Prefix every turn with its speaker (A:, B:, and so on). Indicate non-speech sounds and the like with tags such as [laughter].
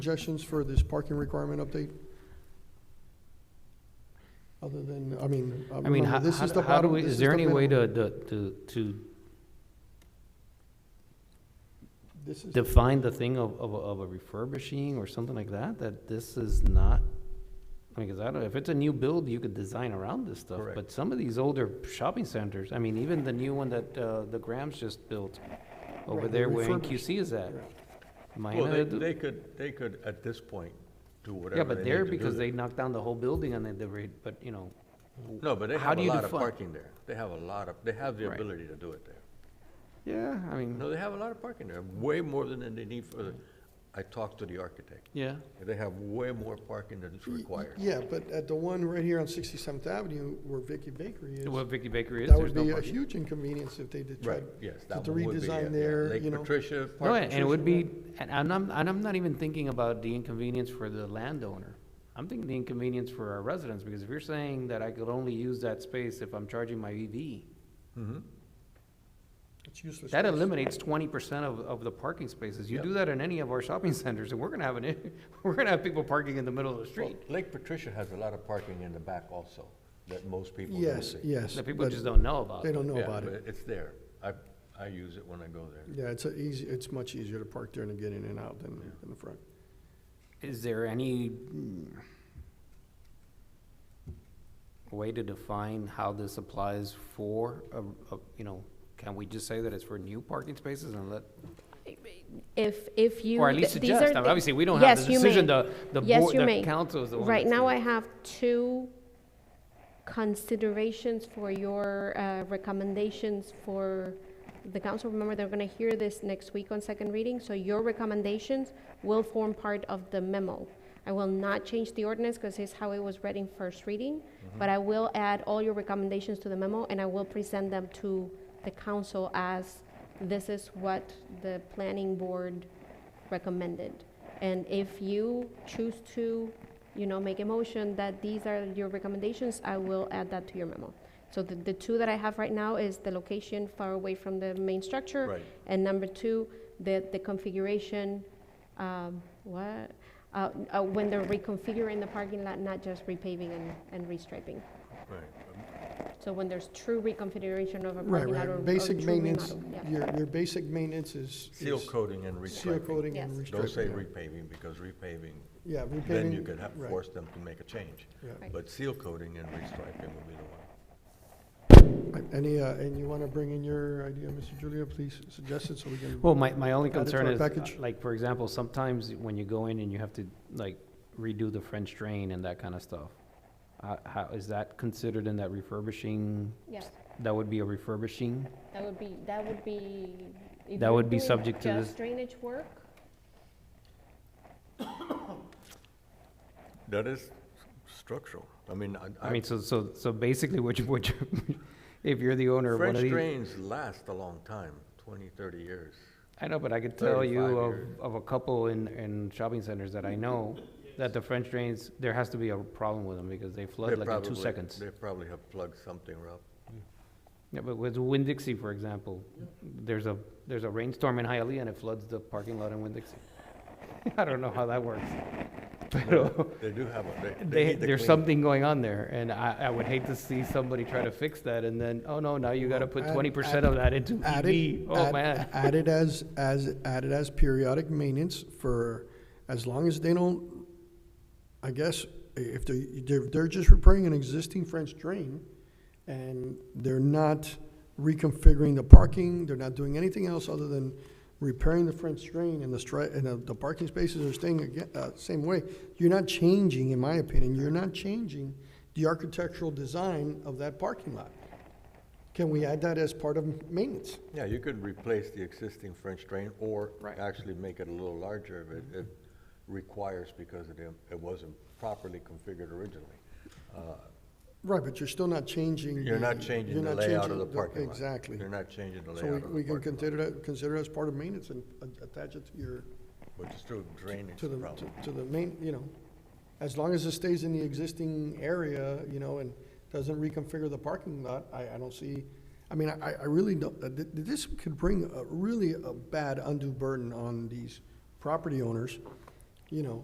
A: Suggestions for this parking requirement update? Other than, I mean, uh,
B: I mean,
A: remember,
B: how,
A: this is
B: how
A: the
B: how do
A: bottom,
B: we,
A: this
B: is
A: the
B: there any way
A: minimum.
B: to, to- to, to
A: This is-
B: define the thing of, of, a- of a refurbishing or something like that, that this is not? I mean, 'cause I don't, if it's a new build, you could design around this stuff,
C: Correct.
B: but some of these older shopping centers, I mean, even the new one that, uh, the Grams just built over
A: Right,
B: there where
A: refurbished.
B: QC is at. Am I
C: Well,
B: gonna
C: they,
B: do-
C: they could, they could, at this point, do
B: Yeah,
C: whatever
B: but
C: they need to
B: there,
C: do
B: because
C: there.
B: they knocked down the whole building and then they, re- but, you know,
C: No, but they
B: how
C: have
B: do
C: a
B: you
C: lot of
B: define-
C: parking there. They have a lot of, they have the
B: Right.
C: ability to do it there.
B: yeah, I mean,
C: No, they have a lot of parking there, way more than they need for the, I talked to the architect.
B: yeah.
C: They have way more parking than is required.
A: Yeah, but at the one right here on Sixty-seventh Avenue where Vicky Bakery is,
B: What Vicky Bakery is,
A: that uh,
B: there's
A: would
B: no
A: be a
B: parking.
A: huge inconvenience if they did try
C: Right,
A: to
C: yes, that
A: to
C: one would be, yeah, yeah.
A: redesign there, you
C: Lake
A: know.
C: Patricia,
B: No,
C: Park
B: and it would be,
A: Patricia,
B: and and I'm, and I'm not even thinking about the inconvenience for the landowner. I'm thinking the inconvenience for our residents, because if you're saying that I could only use that space if I'm charging my E EV,
A: It's useless.
B: that
A: space.
B: eliminates twenty percent of, of the parking spaces. You
C: Yep.
B: do that in any of our shopping [laughs] centers, and we're gonna have an, i- [laughs] we're gonna have people parking in the middle of the
C: Well,
B: street.
C: Lake Patricia has a lot of parking in the back also, that most people don't
A: Yes,
C: see.
A: yes.
B: That people
A: but
B: just don't know about.
A: They don't know
C: Yeah,
A: about
C: but
A: it.
C: It's there. I, I use it when I go there.
A: Yeah, it's a easy, it's much easier to park there and get in and out than in the front.
B: Is there any mm, way to define how this applies for, a- a- you know, can we just say that it's for new parking spaces and let
D: If, if you.
B: Or at least
D: th- these
B: suggest, I
D: are
B: mean,
D: the-
B: obviously, we don't have
D: Yes,
B: the
D: you
B: decision,
D: may.
B: the, the
D: Yes,
B: board,
D: you
B: the
D: may.
B: council is the one.
D: Right
B: that's-
D: now, I have two considerations for your uh, recommendations for the council. Remember, they're going to hear this next week on second reading, so your recommendations will form part of the memo. I will not change the ordinance because it's how it was read in first reading, but I will add all your recommendations to the memo, and I will present them to the council as this is what the planning board recommended. And if you choose to, you know, make a motion that these are your recommendations, I will add that to your memo. So the, the two that I have right now is the location far away from the main structure.
C: Right.
D: And number two, the, the configuration, um, what, uh, uh, when they're reconfiguring the parking lot, not just repaving and, and restriping.
C: Right.
D: So when there's true reconfiguration of a
A: Right,
D: parking lot or, or
A: right.
D: true
A: Basic maintenance,
D: remodel, yeah.
A: your, your basic maintenance is.
C: Seal
A: is
C: coating and restriping.
A: Seal coating and
D: Yes.
A: restriping.
C: Don't say
A: yeah.
C: repaving, because repaving,
A: Yeah, repaving.
C: then you could have,
A: right,
C: force them to make a change.
A: yeah.
D: Right.
C: But seal coating and restriping would be the one.
A: Any, uh, and you want to bring in your idea, Mr. Julia, please suggest it so we can.
B: Well, my, my only
A: Add it to
B: concern
A: our
B: is, uh,
A: package.
B: like, for example, sometimes when you go in and you have to, like, redo the French drain and that kind of stuff. Uh, how, is that considered in that refurbishing?
D: Yes.
B: That would be a refurbishing?
D: That would be, that would be. if
B: That
D: you're
B: would be
D: doing
B: subject to
D: just
B: this-
D: Drainage work,
C: That is structural. I mean, I.
B: I mean, so, so, so basically, what you, what you, [laughs] if you're the owner of one
C: French
B: of these.
C: drains last a long time, 20, 30 years.
B: I know, but I could tell you
C: 35
B: of,
C: years.
B: of a couple in, in shopping centers that I know, that the French drains, there has to be a problem with them, because they
C: They
B: flood like in two
C: probably-
B: seconds.
C: They probably have plugged something up.
B: Yeah, but with Winn-Dixie, for example, there's a, there's a rainstorm in Hialeah and it floods the parking lot in Winn-Dixie. [laughs] I don't know how that works. [laughs] But
C: They do have a, they- they
B: they,
C: need to
B: there's
C: clean.
B: something going on there, and I, I would hate to see somebody try to fix that and then, oh no, now you gotta put
A: Add-
B: twenty
A: add-
B: percent of that into
A: Add
B: EV.
A: it,
B: Oh,
A: add-
B: man.
A: add it as, as, add it as periodic maintenance for, as long as they don't, I guess, i- if they, they're, they're just repairing an existing French drain, and they're not reconfiguring the parking, they're not doing anything else other than repairing the French drain, and the stri, and the, the parking spaces are staying again, uh, same way. You're not changing, in my opinion, you're not changing the architectural design of that parking lot. Can we add that as part of maintenance?
C: Yeah, you could replace the existing French drain or
B: Right.
C: actually make it a little larger if it- it requires because it, it wasn't properly configured originally.
A: Right, but you're still not changing.
C: You're not
A: the-
C: changing
A: you're
C: the
A: not
C: layout
A: changing
C: of the parking lot.
A: Exactly.
C: You're not changing the
A: So
C: layout
A: we,
C: of the
A: we can
C: parking lot,
A: consider that, consider it as part of maintenance and a- attach it to your,
C: which is still drainage
A: to the,
C: problem.
A: to- to the main, you know, as long as it stays in the existing area, you know, and doesn't reconfigure the parking lot, I, I don't see, I mean, I, I really don't, uh, th- this could bring a, really a bad undue burden on these property owners you know,